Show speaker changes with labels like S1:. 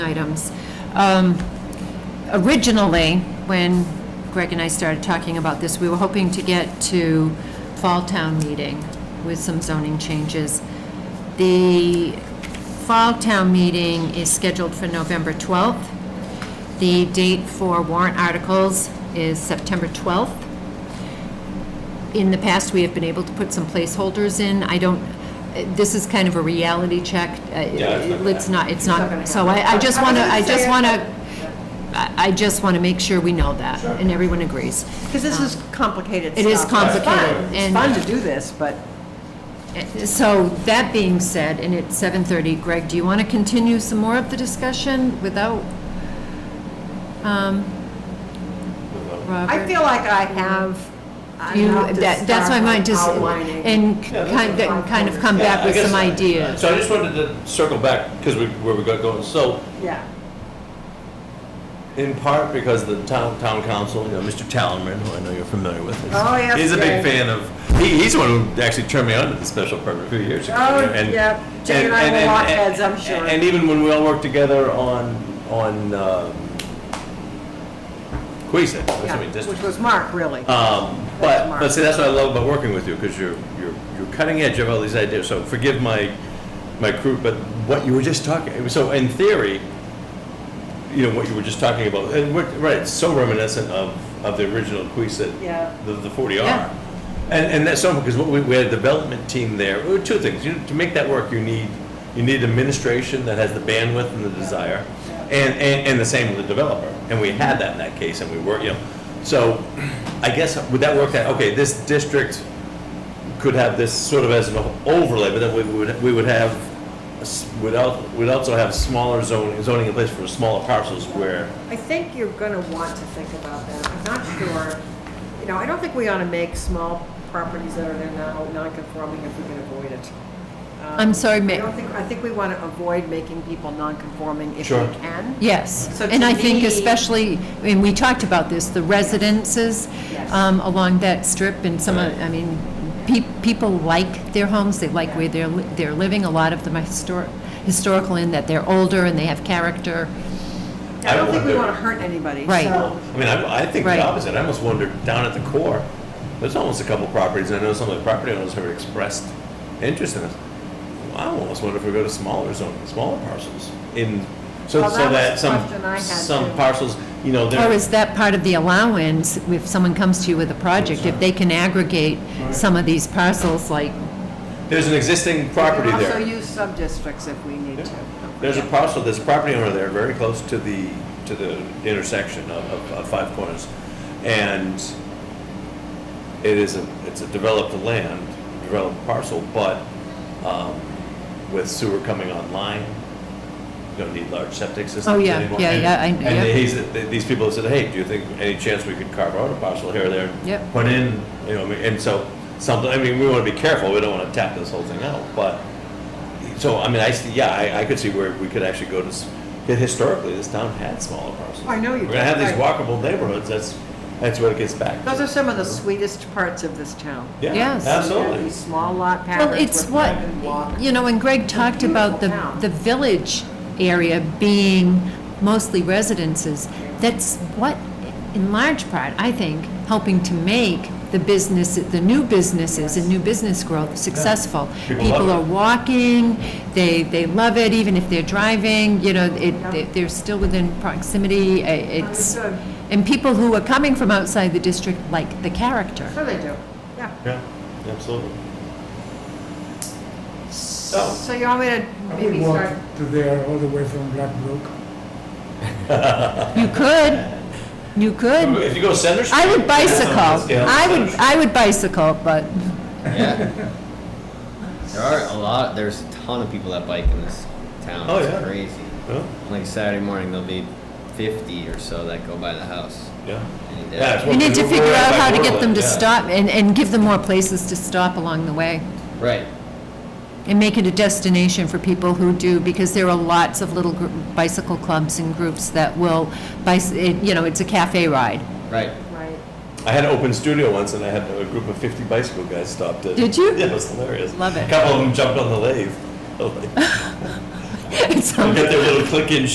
S1: items. Um, Originally, when Greg and I started talking about this, we were hoping to get to Fall Town Meeting with some zoning changes. The Fall Town Meeting is scheduled for November 12th. The date for warrant articles is September 12th in the past, we have been able to put some placeholders in. I don't, this is kind of a reality check. Uh,
S2: Yeah, it's not gonna
S1: It's not, it's
S3: not gonna
S1: not, so I, I just want to, I just
S3: uh,
S1: want to, I I just want to make sure we know that, and everyone agrees.
S3: Because this Um, is complicated
S1: It is
S3: stuff. It's fun.
S1: complicated, and-
S3: It's fun to do this, but
S1: Eh, So that being said, and it's 7:30, Greg, do you want to continue some more of the discussion without um, Robert?
S3: I feel like I have
S1: You-
S3: enough to
S1: that- That's my
S3: start
S1: mind, just,
S3: outlining.
S1: and
S2: Yeah, that's
S1: kind
S3: fine.
S1: kind of come
S2: Yeah,
S1: back
S2: I
S1: with
S2: guess-
S1: some ideas.
S2: So I just wanted to circle back, because we, where we got going, so,
S3: Yeah,
S2: in part because the town, town council, you know, Mr. Tallerman, who I know you're familiar with. is-
S3: Oh, yes,
S2: He's a
S3: yeah.
S2: big fan of, he, he's the one who actually turned me on to the special permit a few years ago.
S3: Oh,
S2: and-
S3: yeah. Jay and I will lock heads, I'm sure.
S2: And even when we all worked together on, on, um, Queeset, I mean,
S3: yeah,
S2: district.
S3: which was Mark, really.
S2: Um,
S3: That's
S2: But,
S3: smart.
S2: but see, that's what I love about working with you, because you're, you're, you're cutting edge, you have all these ideas, so forgive my, my crew, but what you were just talking, so in theory, you know, what you were just talking about, and what, right, it's so reminiscent of, of the original Queeset,
S3: Yeah.
S2: the, the forty
S1: Yeah.
S2: R. And, and that's so, because what we, we had a development team there, Well, two things, you, to make that work, you need, you need administration that has the bandwidth and the desire, and, and, and the same with the developer, and we had that in that case, and we were, you know, so, I guess, would that work out, okay, this district could have this sort of as an overlay, but then we would, we would have, a s- would al, would also have smaller zoning, zoning in place for smaller parcels where,
S3: I think you're going to want to think about that. I'm not sure, you know, I don't think we ought to make small properties that are there now non-conforming if we can avoid it. Um,
S1: I'm sorry, Ma-
S3: I don't think, I think we want to avoid making people non-conforming if we
S2: Sure.
S3: can.
S1: Yes,
S3: So
S1: and
S3: to
S1: I think
S3: me-
S1: especially, and we talked about this, the residences
S3: Yes.
S1: um, along that strip and some, of- I mean, pe- people like their homes, they like where they're, li- they're living. A lot of them are histor- historical in that they're older and they have character.
S3: I don't think we
S2: wonder-
S3: want to hurt anybody,
S1: Right.
S3: so.
S2: I mean, I, I think
S1: Right.
S2: the opposite, I almost wonder, down at the core, there's almost a couple properties, and I know some of the property owners have expressed interest in this. I almost wonder if we go to smaller zone, smaller parcels, in, so,
S3: Well,
S2: so
S3: that
S2: that
S3: was the
S2: some,
S3: question I had,
S2: some
S3: too.
S2: parcels, you know, they're.
S1: Or is that part of the allowance, if someone comes to you with a project, if they can aggregate some of these parcels, like,
S2: There's an existing property
S3: We can
S2: there.
S3: also use sub-districts if we need to.
S2: There's a parcel, there's a property owner there, very close to the, to the intersection of, of- of Five Corners. And it is a, it's a developed land, developed parcel, but, um, with sewer coming online, you don't need large septic systems
S1: Oh, yeah,
S2: anymore.
S1: yeah,
S2: And-
S1: yeah, I-
S2: And
S1: yeah.
S2: he's, th- these people have said, hey, do you think, any chance we could carve out a parcel here or there?
S1: Yep.
S2: Put in, you know, I mean, and so, something, I mean, we wanna be careful, we don't wanna tap this whole thing out, but so, I mean, I, see- yeah, I, I could see where we could actually go to, s- that historically, this town had smaller parcels.
S3: I know you
S2: We're gonna have
S3: did,
S2: these
S3: right.
S2: walkable neighborhoods, that's, that's what it gets back to.
S3: Those are some of the sweetest parts of this town.
S2: Yeah,
S1: Yes.
S3: These
S2: absolutely.
S3: Small lot
S1: well,
S3: patterns.
S1: it's
S3: with
S1: what,
S3: private walk.
S1: you know, and Greg talked about the,
S3: Beautiful town.
S1: the village area being mostly residences. That's what, in large part, I think, helping to make the business, the new businesses and new business growth successful.
S2: People love
S1: People
S2: it.
S1: are walking, they, they love it, even if they're driving, you know, it, they- they're still within proximity. I- It's,
S3: Understood.
S1: and people who are coming from outside the district like the character.
S3: So they do, yeah.
S2: Yeah, absolutely. So,
S3: So you want me to
S4: I would
S3: maybe
S4: walk
S3: start?
S4: to there all the way from Blackbrook.
S1: You could, you could.
S2: if you go Center Street.
S1: I would bicycle.
S2: Yeah.
S1: I would, I would bicycle, but
S5: Yeah. there are a lot. There's a ton of people that bike in this town.
S2: Oh,
S5: it's
S2: yeah.
S5: crazy.
S2: Yeah,
S5: Like Saturday morning, there'll be 50 or so that go by the house. uh,
S2: Yeah.
S5: Any day.
S2: Yeah, it's
S1: we
S2: what
S1: need to
S2: do
S1: figure
S2: right
S1: out
S2: by
S1: how to get them
S2: Portland,
S1: to
S2: yeah.
S1: stop and, and give them more places to stop along the way
S5: Right.
S1: and make it a destination for people who do, because there are lots of little gr- bicycle clubs and groups that will, bicy- it- you know, it's a cafe ride.
S5: Right.
S3: Right.
S2: I had an open studio once and I had a group of fifty bicycle guys stopped it.
S1: Did you?
S2: Yeah, it was hilarious.
S1: Love it.
S2: A couple of them jumped on the lathe. Like,
S1: It sounds
S2: Got their little click-in